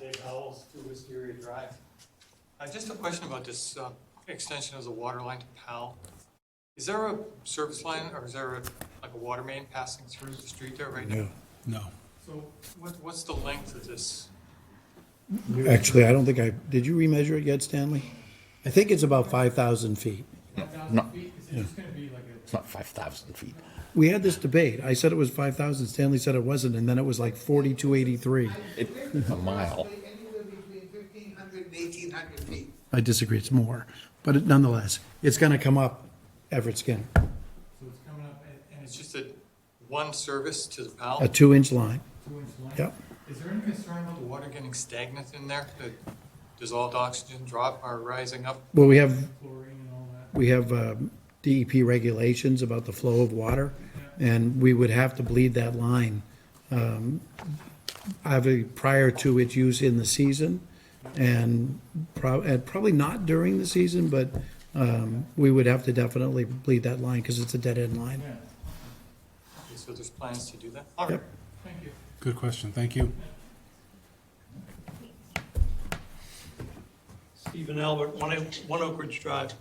Dave Howells, to Wisteria Drive. Uh, Just a question about this uh, extension of the water line to Powell. Is there a service line or is there a- like a water main passing through the street there right now? No. So what- what's the length of this? Actually, I don't think I, did you remeasure it yet, Stanley? I think it's about 5,000 feet. No. It's gonna be like It's not 5,000 feet. We had this debate. I said it was 5,000, Stanley said it wasn't, and then it was like 4,283. It's a mile. Anywhere between fifteen hundred and eighteen hundred feet. I disagree, it's more, but it- nonetheless, it's going to come up Everett Skinner, So it's coming up and it's just a one service to the a Powell, two-inch line. two-inch line? Yep. Is there any concern about the water getting stagnant in there, that dissolved oxygen drop are rising up Well, we have, chlorine and all that? we have um, DEP regulations about the flow of water, and we would have to bleed that line um, either prior to its use in the season, and prob- and probably not during the season, but um, we would have to definitely bleed that line, because it's a dead-end line. Okay, So there's plans to do that? All right, Yep. thank you. Good question, thank you. Stephen Albert, One Oak- One Oak Ridge Drive.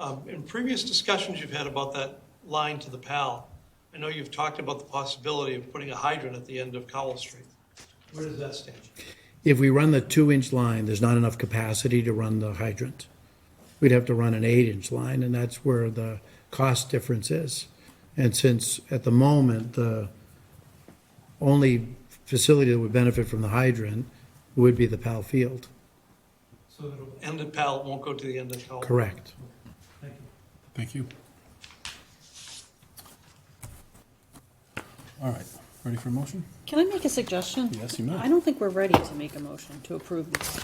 Um, In previous discussions you've had about that line to the PAL, I know you've talked about the possibility of putting a hydrant at the end of Cowell Street. Where does that stand? If we run the two-inch line, there's not enough capacity to run the hydrant. We'd have to run an eight-inch line, and that's where the cost difference is. And since at the moment, the only facility that would benefit from the hydrant would be the Pal Field, So that it'll end at PAL, it won't go to the end of Cowell? correct? Thank you. Thank you. All right, ready for a motion? Can I make a suggestion? Yes, you may. I don't think we're ready to make a motion to approve this.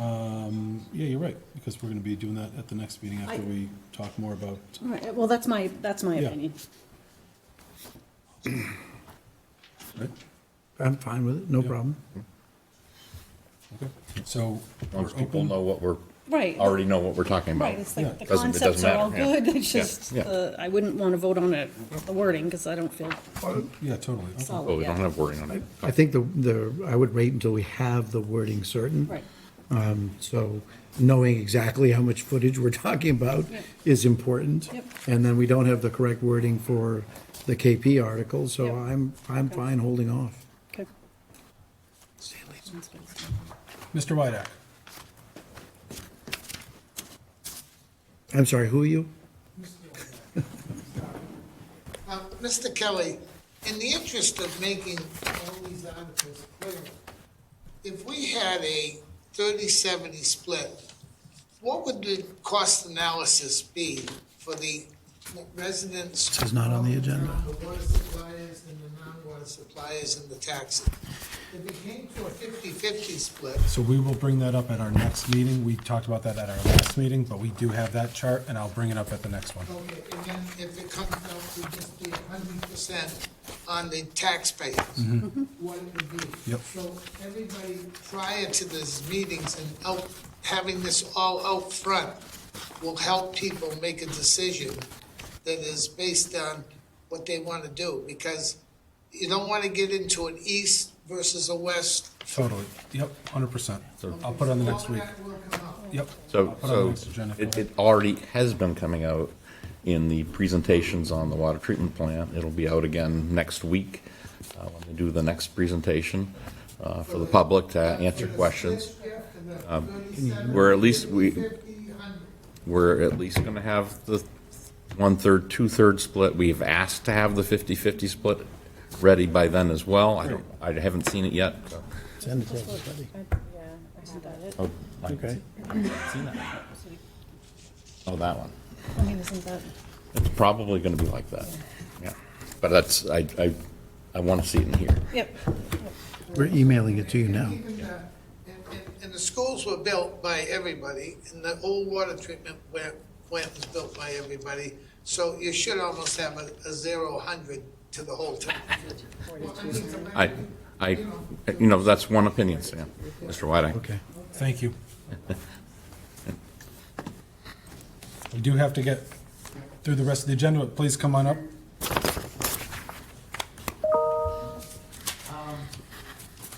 Um, Yeah, you're right, because we're going to be doing that at the next meeting after I- we talk more about, All right, well, that's my, that's my Yeah. opinion. right? I'm fine with it, no problem. Okay, so As long we're as people open, know what we're, Right. already know what we're talking about. Right, it's like the Doesn't- it doesn't concepts are all matter, yeah. good, it's Yeah, just, yeah. the- I wouldn't want to vote on it, the wording, because I don't feel yeah, totally. okay. Oh, solid we don't yet. have wording on it. I think the, the, I would wait until we have the wording certain. Right, So knowing exactly how much footage we're talking about Yep. is important. Yep. And then we don't have the correct wording for the KP article, so Yep. I'm, I'm fine holding off. okay. Mr. Wydack, I'm sorry, who are you? Now, Mr. Kelly, in the interest of making all these articles clear, if we had a 30-70 split, what would the cost analysis be for the residents? This is not on the agenda. The water suppliers and the non-water suppliers and the taxes. If it came to a 50-50 split, so we will bring that up at our next meeting. We talked about that at our last meeting, but we do have that chart, and I'll bring it up at the next one. Okay, and then if it comes out to just be hundred percent on the taxpayers, what it would be. Mm-hmm. Yep. So everybody prior to these meetings and out, having this all out front will help people make a decision that is based on what they want to do, because you don't want to get into an east versus a west. Totally, yep, 100%. I'll put it on the next All week, that will come out. yep. I'll So, put it on the so next agenda for it, that. it already has been coming out in the presentations on the water treatment plant. It'll be out again next week, uh, when we do the next presentation, uh, for the public to answer questions. After the 37, Um, We're at least, we, 50, 100. we're at least going to have the one-third, two-third split. We've asked to have the 50-50 split ready by then as well. I don't, I haven't seen it yet. so. Isn't that it? Oh, I haven't Okay. seen it. Oh, that one. I mean, isn't that, It's probably going to be like that. Yeah. But that's, I, I, I want to see it in here. yep, We're emailing it to you now. Even the- And, and- and the schools were built by everybody, and the old water treatment plant, plant was built by everybody. So you should almost have a, a zero hundred to the whole town. Well, I mean, to my- I, I, you know, that's one opinion, Sam, Mr. Whiting. Okay. Thank you. We do have to get through the rest of the agenda, but please come on up.